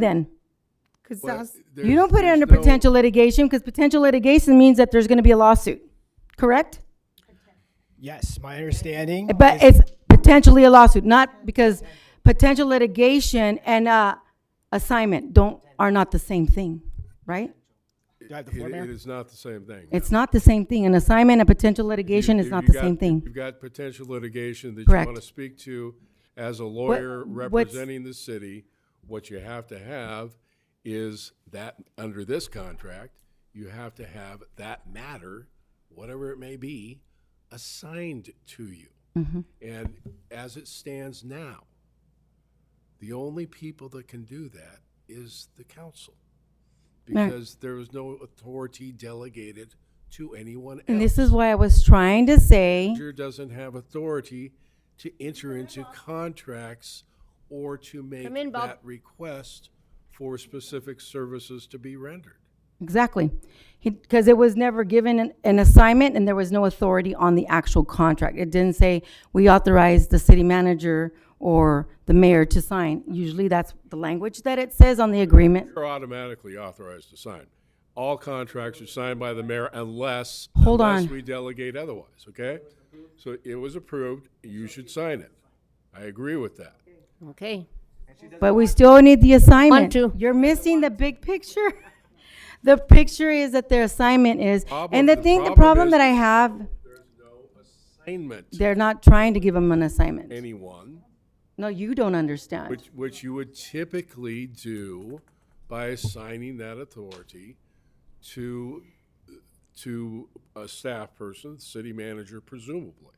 then? Because Well, that's, there's- You don't put it there's under no- potential litigation because potential litigation means that there's gonna be a lawsuit, correct? Yes, my understanding. But is- it's potentially a lawsuit, not because potential litigation and, uh, assignment don't, are not the same thing, right? Do I have the it- floor, Mayor? It is not the same thing. It's not the same thing. An assignment and potential litigation You- is you- not you the got- same thing. You've got potential litigation that you Correct. want to speak to as a lawyer what's- representing the city. What you have to have is that, under this contract, you have to have that matter, whatever it may be, assigned to you. Mm-hmm. And as it stands now, the only people that can do that is the council. Right. Because there is no authority delegated to anyone else. And this is why I was trying to say, manager doesn't have authority to enter into contracts or to make Come in, Bob. that request for specific services to be rendered. exactly. He, because it was never given an, an assignment and there was no authority on the actual contract. It didn't say, we authorize the city manager or the mayor to sign. Usually that's the language that it says on the agreement. You're automatically authorized to sign. All contracts are signed by the mayor unless, Hold unless on. we delegate otherwise, okay? So it was approved, you should sign it. I agree with that. okay. But we still need the assignment. to. You're missing the big picture. The picture is that their assignment is, Problem- and the the thing, the problem problem is- that I have, Assignment, they're not trying to give them an assignment. anyone, No, you don't understand. which, which you would typically do by assigning that authority to, to a staff person, city manager presumably.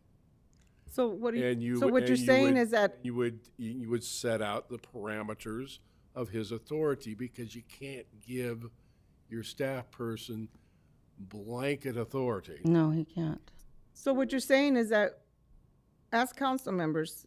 So what are And you. you, so would- what you're and you saying would- is that, You would, you would set out the parameters of his authority because you can't give your staff person blanket authority. No, he can't. so what you're saying is that as council members,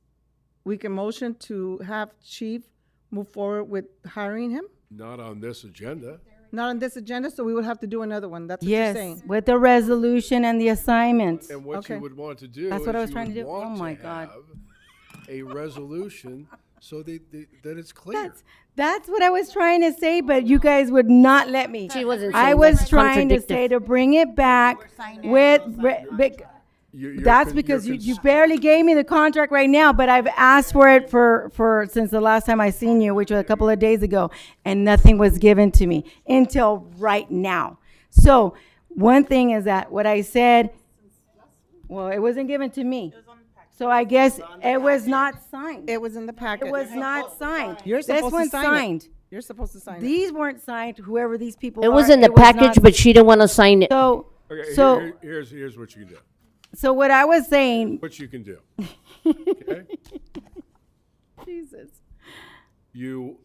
we can motion to have chief move forward with hiring him? Not on this agenda. Not on this agenda, so we would have to do another one. That's what you're Yes, saying. with the resolution and the assignment. And what Okay. you would want to do That's is what I was you trying to would do. Oh want my God. have A resolution so that, that- that it's clear. That's, that's what I was trying to say, but you guys would not let me. She wasn't I saying was that. trying to say Contradictive. to bring it back with, re- bec- You're- you're That's con- you're because you, you cons- barely gave me the contract right now, but I've asked for it for, for, since the last time I seen you, which was a couple of days ago, and nothing was given to me until right now. So, one thing is that what I said, well, it wasn't given to me. So I guess it was not signed. It was in the packet. It was not signed. You're This supposed to one's sign it. signed. You're supposed to sign it. These weren't signed, whoever these people are. It was in the package, not- but she didn't want to sign it. So, Okay, here- so, here- Here's, here's what you can do, so what I was saying, what you can do. Okay? Jesus. you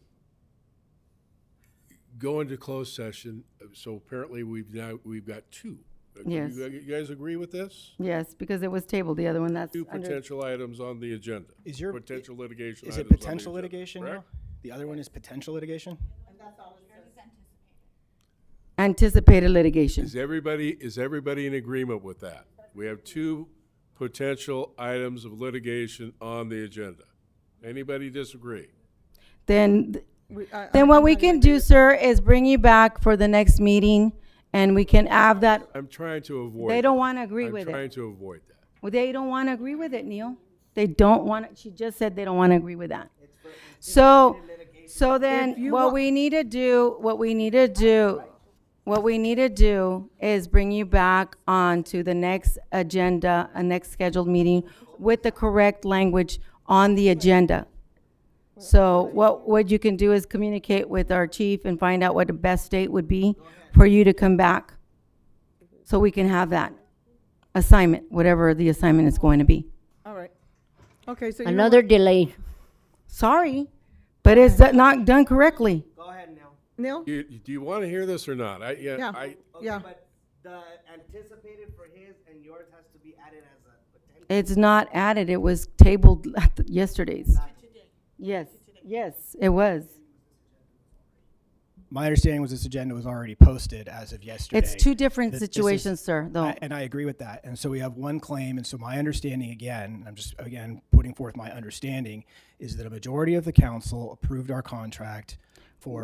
go into closed session, so apparently we've now, we've got two. Uh, Yes. You you guys agree with this? Yes, because it was tabled, the other one, that's Two under, potential items on the agenda. Is your- Potential litigation Is items it on the potential agenda, litigation now? correct? The other one is potential litigation? anticipated litigation. Is everybody, is everybody in agreement with that? We have two potential items of litigation on the agenda. Anybody disagree? Then, We- I- then I'm- what I'm we not can gonna do, sir, is bring you back for the next meeting, and we can have that, I'm trying to avoid. they don't that. want to agree with I'm it. trying to avoid that. Well, they don't want to agree with it, Neil. They don't want, she just said they don't want to agree with that. So, so then, what we need to do, what we need to do, what we need to do is bring you back on to the next agenda, a next scheduled meeting with the correct language on the agenda. So what, what you can do is communicate with our chief and find out what the best date would be for you to come back. So we can have that assignment, whatever the assignment is going to be. All right. Okay, so you know Another delay. Sorry, but it's do- not done correctly. Go ahead now. what, Neil? You, do you want to hear this or not? I, yeah, Yeah. I, Okay, Yeah. But the anticipated for his and yours has to be added as a potential. It's not added, it was tabled at the- yesterday's. Yes, yes, it was. My understanding was this agenda was already posted as of yesterday. It's two different Th- this is- situations, sir, though. I- And I agree with that. And so we have one claim, and so my understanding, again, I'm just, again, putting forth my understanding, is that a majority of the council approved our contract for